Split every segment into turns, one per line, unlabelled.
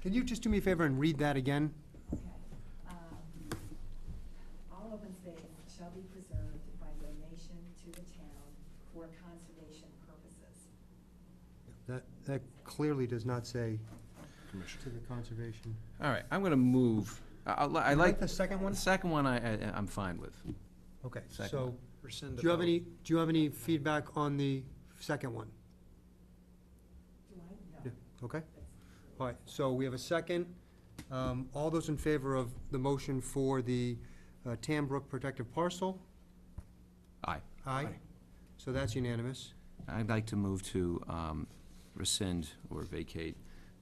Can you just do me a favor and read that again?
Okay. Um, All open space shall be preserved by donation to the town for conservation purposes.
That, that clearly does not say
Commission.
to the conservation.
All right, I'm gonna move, I, I li- I
You
like.
the second one?
The second one I, I, I'm fine with.
Okay,
Second
so,
one.
do you have any, do you have any feedback on the second one?
Do I? No.
Yeah, Okay? All right, so we have a second. Um, All those in favor of the motion for the uh, Tambrook Protective Parcel?
Aye.
Aye.
Aye.
So that's unanimous.
I'd like to move to um, rescind or vacate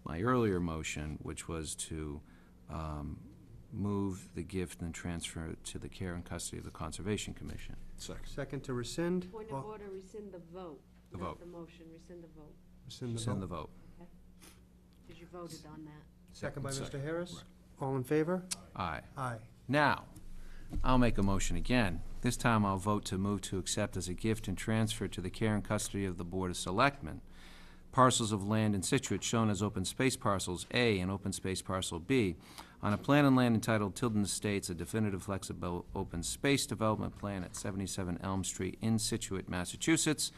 my earlier motion, which was to um, move the gift and transfer it to the care and custody of the Conservation Commission.
Second.
Second to rescind.
Point
Well,
of order, rescind the vote.
The vote.
Not the motion, rescind the vote,
Rescind the
Send the
vote.
vote.
because you voted on that.
Second by Mr.
Second,
Harris.
right.
All in favor?
Aye.
Aye.
Now, I'll make a motion again. This time I'll vote to move to accept as a gift and transfer to the care and custody of the Board of Selectmen parcels of land in Situate shown as open space parcels A and open space parcel B on a plan and land entitled Tilden Estates, a definitive flexible open space development plan at 77 Elm Street in Situate, Massachusetts,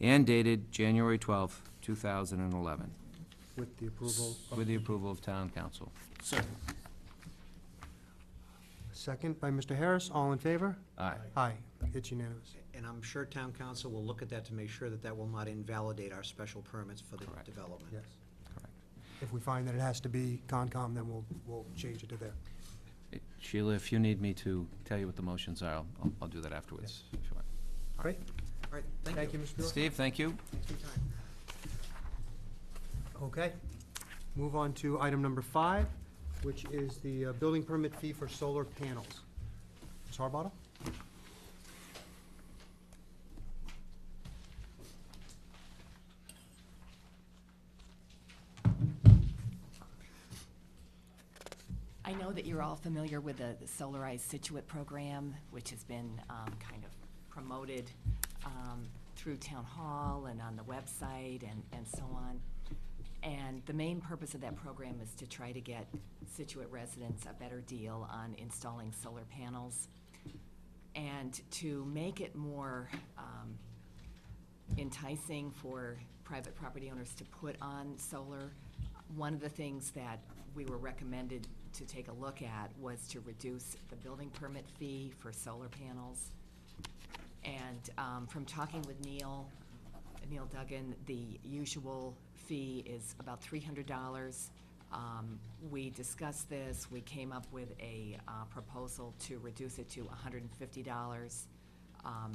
and dated January 12, 2011,
With the approval of,
with the approval of Town Council.
Second.
second by Mr. Harris. All in favor?
Aye.
Aye. It's unanimous.
And I'm sure town council will look at that to make sure that that will not invalidate our special permits for the
Correct.
development.
Yes.
Correct.
If we find that it has to be Concom, then we'll, we'll change it to there.
Sheila, if you need me to tell you what the motions are, I'll, I'll do that afterwards. if you want.
Great.
All right,
Thank
thank
you,
you.
Mr. Bill.
Steve, thank you.
Thanks for your time.
Okay. Move on to item number five, which is the uh, building permit fee for solar panels. Ms. Harbottle?
I know that you're all familiar with the the Solarized Situate program, which has been um, kind of promoted um, through Town Hall and on the website and, and so on. And the main purpose of that program is to try to get Situate residents a better deal on installing solar panels and to make it more um, enticing for private property owners to put on solar. One of the things that we were recommended to take a look at was to reduce the building permit fee for solar panels. And um, from talking with Neil, Neil Duggan, the usual fee is about three hundred dollars. Um, We discussed this, we came up with a uh, proposal to reduce it to hundred and fifty dollars. Um,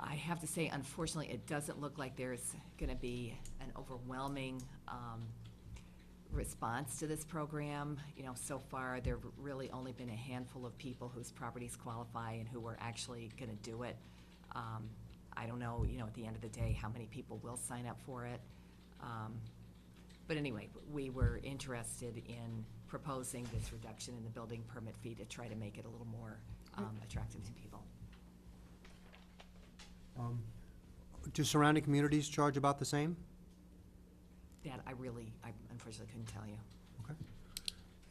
I have to say, unfortunately, it doesn't look like there's gonna be an overwhelming, um, response to this program. You know, so far, there've really only been a handful of people whose properties qualify and who are actually gonna do it. Um, I don't know, you know, at the end of the day, how many people will sign up for it. Um, But anyway, we were interested in proposing this reduction in the building permit fee to try to make it a little more, um, attractive to people.
Um, Do surrounding communities charge about the same?
That I really, I unfortunately couldn't tell you.
Okay.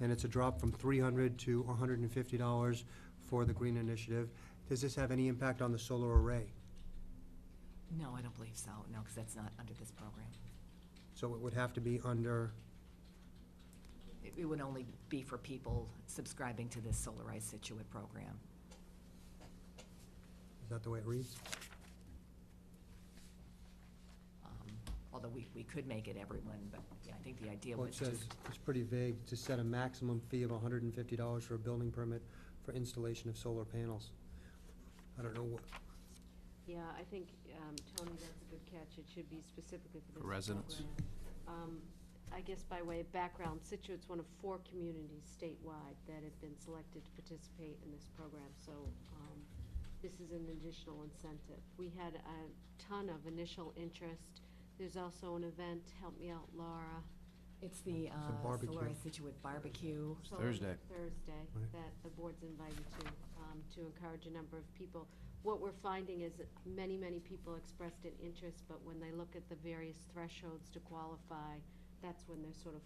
And it's a drop from three hundred to hundred and fifty dollars for the green initiative. Does this have any impact on the solar array?
No, I don't believe so, no, because that's not under this program.
So it would have to be under,
It- It would only be for people subscribing to this Solarized Situate program.
is that the way it reads?
Um, Although we, we could make it everyone, but I think the idea
Well,
was
it
just,
says, it's pretty vague, to set a maximum fee of hundred and fifty dollars for a building permit for installation of solar panels. I don't know what,
Yeah, I think, um, Tony, that's a good catch. It should be specifically for this
For residents.
program. Um, I guess by way of background, Situate's one of four communities statewide that have been selected to participate in this program, so, um, this is an additional incentive. We had a ton of initial interest. There's also an event, help me out, Laura,
it's the uh,
barbecue.
Solarized Situate barbecue.
So
Thursday.
Thursday,
Right.
that the board's invited to, um, to encourage a number of people. What we're finding is that many, many people expressed an interest, but when they look at the various thresholds to qualify, that's when they're sort of